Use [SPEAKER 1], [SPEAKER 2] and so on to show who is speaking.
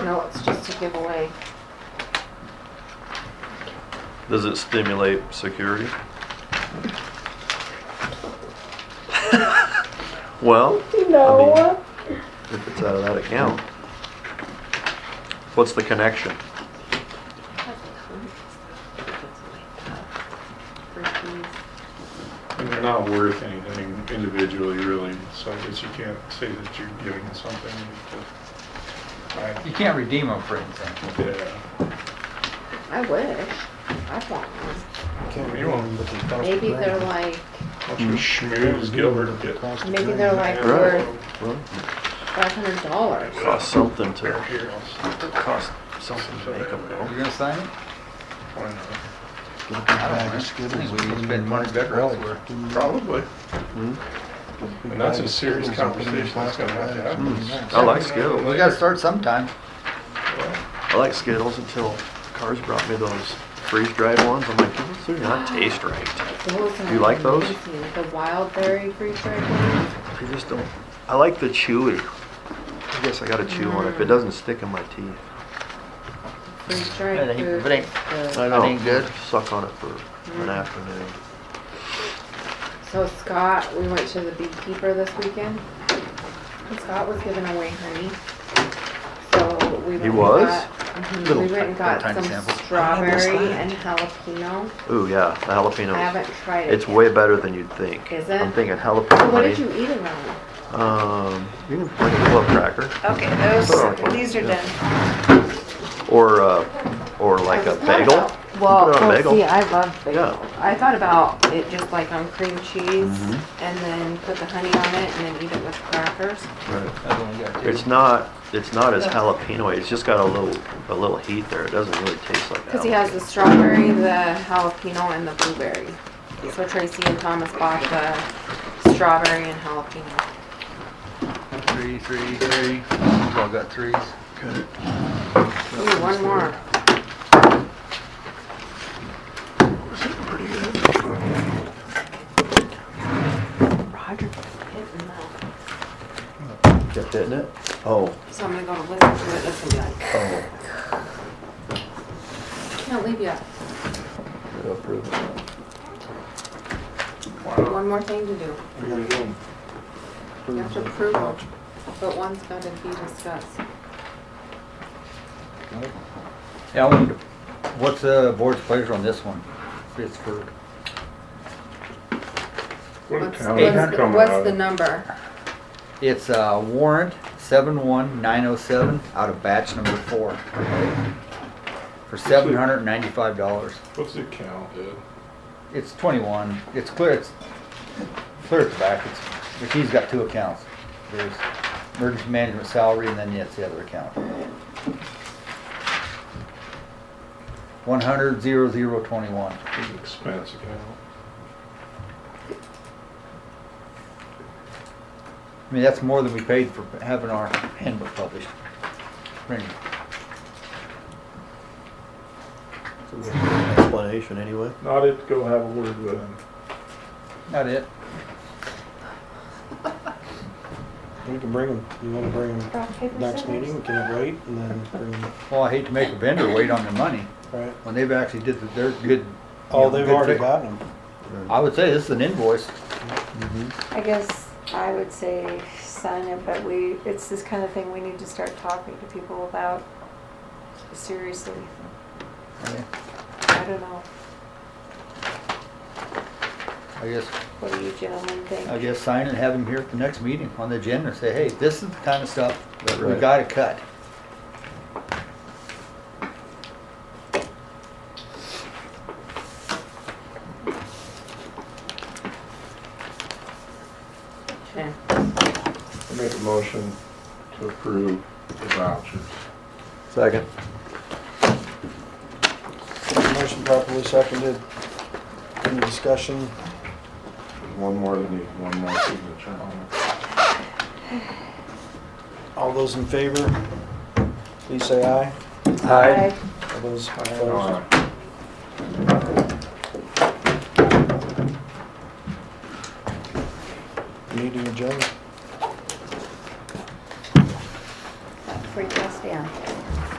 [SPEAKER 1] No, it's just a giveaway.
[SPEAKER 2] Does it stimulate security? Well,
[SPEAKER 3] No.
[SPEAKER 2] if it's out of that account. What's the connection?
[SPEAKER 3] They're not worth anything individually, really, so I guess you can't say that you're giving something. to- I-
[SPEAKER 4] You can't redeem them for anything.
[SPEAKER 3] Yeah.
[SPEAKER 1] I wish. I want one.
[SPEAKER 3] You won't.
[SPEAKER 1] Maybe they're like,
[SPEAKER 3] Bunch of schmooze Gilbert will get.
[SPEAKER 1] maybe they're like worth
[SPEAKER 2] Well,
[SPEAKER 1] five hundred dollars.
[SPEAKER 2] it costs something
[SPEAKER 3] Here,
[SPEAKER 2] to,
[SPEAKER 3] here, I'll s-
[SPEAKER 2] it costs something to make them
[SPEAKER 4] You're gonna sign it?
[SPEAKER 3] why not?
[SPEAKER 4] I don't know. I think we each spent money better elsewhere.
[SPEAKER 3] Mm-hmm. Probably. And that's a serious conversation that's Mm-hmm. gonna have to happen.
[SPEAKER 2] I like Skittles.
[SPEAKER 4] We gotta start sometime.
[SPEAKER 2] I like Skittles until Cars brought me those freeze-dried ones. I'm like, these do not taste right.
[SPEAKER 1] Those are
[SPEAKER 2] You like those?
[SPEAKER 1] amazing. The wild berry freeze dried ones.
[SPEAKER 2] They just don't. I like the chewy. I guess I gotta chew on it. If it doesn't stick in my teeth,
[SPEAKER 1] Freeze
[SPEAKER 4] But
[SPEAKER 1] dried
[SPEAKER 4] it ain't-
[SPEAKER 1] fruit.
[SPEAKER 4] but it
[SPEAKER 1] is
[SPEAKER 2] I
[SPEAKER 1] good.
[SPEAKER 2] know.
[SPEAKER 4] ain't good.
[SPEAKER 2] Suck on it for an
[SPEAKER 1] Mm.
[SPEAKER 2] afternoon.
[SPEAKER 1] So Scott, we went to the beekeeper this weekend. And Scott was giving away honey. So we went.
[SPEAKER 2] He
[SPEAKER 1] and
[SPEAKER 2] was?
[SPEAKER 1] got- mhm,
[SPEAKER 2] Little
[SPEAKER 1] We went and got
[SPEAKER 4] tiny
[SPEAKER 1] some
[SPEAKER 4] sample.
[SPEAKER 1] strawberry and jalapeno.
[SPEAKER 2] Ooh yeah, the jalapeno.
[SPEAKER 1] I haven't tried it.
[SPEAKER 2] It's way better than you'd think.
[SPEAKER 1] Is it?
[SPEAKER 2] I'm thinking
[SPEAKER 1] So
[SPEAKER 2] jalapeno.
[SPEAKER 1] what did
[SPEAKER 2] honey.
[SPEAKER 1] you eat around?
[SPEAKER 2] Um, you can like a little cracker,
[SPEAKER 5] Okay, those,
[SPEAKER 2] Sure.
[SPEAKER 5] these are
[SPEAKER 2] Yeah.
[SPEAKER 5] done.
[SPEAKER 2] or uh, or like a
[SPEAKER 1] I thought
[SPEAKER 2] bagel.
[SPEAKER 1] about-
[SPEAKER 2] You
[SPEAKER 1] Well,
[SPEAKER 2] can put it on a
[SPEAKER 1] well,
[SPEAKER 2] bagel.
[SPEAKER 1] see, I love bagels.
[SPEAKER 2] Yeah.
[SPEAKER 1] I thought about it just like on cream cheese
[SPEAKER 2] Mm-hmm.
[SPEAKER 1] and then put the honey on it and then eat it with crackers.
[SPEAKER 2] Right.
[SPEAKER 4] That's what we got too.
[SPEAKER 2] It's not, it's not as jalapeno, it's just got a little, a little heat there, it doesn't really taste like
[SPEAKER 1] Because he has the
[SPEAKER 2] jalapeno.
[SPEAKER 1] strawberry, the jalapeno, and the blueberry. So Tracy and Thomas bought the strawberry and jalapeno.
[SPEAKER 4] Three, three, three. We've all got threes.
[SPEAKER 1] Ooh, one more. Roger hitting that.
[SPEAKER 2] Kept hitting it? Oh,
[SPEAKER 1] So I'm gonna go listen to it, listen to it.
[SPEAKER 2] oh,
[SPEAKER 1] Can't leave yet.
[SPEAKER 2] it'll prove it.
[SPEAKER 3] Wow.
[SPEAKER 1] One more thing to do. You have to approve them, but one's gotta be discussed.
[SPEAKER 4] Yeah, I wonder, what's the board's pleasure on this one? It's for,
[SPEAKER 3] What a
[SPEAKER 1] What's-
[SPEAKER 3] town.
[SPEAKER 4] Eight
[SPEAKER 1] what's the-
[SPEAKER 3] Coming out
[SPEAKER 1] What's
[SPEAKER 3] of-
[SPEAKER 1] the number?
[SPEAKER 4] it's uh, warrant seven one nine oh seven out of batch number four. For seven hundred and ninety-five dollars.
[SPEAKER 3] What's the count, dude?
[SPEAKER 4] It's twenty-one. It's clear, it's clear at the back. It's, but he's got two accounts. There's emergency management salary and then it's the other account. One hundred zero zero twenty-one.
[SPEAKER 3] Big expense account.
[SPEAKER 4] I mean, that's more than we paid for having our handbook published. Randy,
[SPEAKER 2] Explanation anyway.
[SPEAKER 3] Not it, go have a word with him.
[SPEAKER 4] Not it.
[SPEAKER 6] We can bring them, you wanna bring them next meeting, we can wait and then bring them,
[SPEAKER 4] Well, I hate to make a vendor wait on their money
[SPEAKER 6] right?
[SPEAKER 4] when they've actually did the- their good. you
[SPEAKER 6] Oh,
[SPEAKER 4] know,
[SPEAKER 6] they've
[SPEAKER 4] good
[SPEAKER 6] already
[SPEAKER 4] fi-
[SPEAKER 6] gotten them.
[SPEAKER 4] I would say this is an invoice.
[SPEAKER 5] I guess I would say sign it, but we, it's this kind of thing we need to start talking to people about. Seriously, I don't know.
[SPEAKER 4] I guess,
[SPEAKER 5] What do you gentlemen
[SPEAKER 4] I
[SPEAKER 5] think?
[SPEAKER 4] guess sign and have them here at the next meeting on the agenda and say, hey, this is the kind of stuff that we
[SPEAKER 2] Right.
[SPEAKER 4] gotta cut.
[SPEAKER 1] Okay.
[SPEAKER 3] I Make a motion to approve the vouchers.
[SPEAKER 2] Second.
[SPEAKER 6] Motion properly seconded. Any discussion?
[SPEAKER 3] One more, we need one more signature on it.
[SPEAKER 6] All those in favor, please say aye.
[SPEAKER 5] Aye.
[SPEAKER 6] All those opposed?
[SPEAKER 3] Aye.
[SPEAKER 6] Meeting adjourned.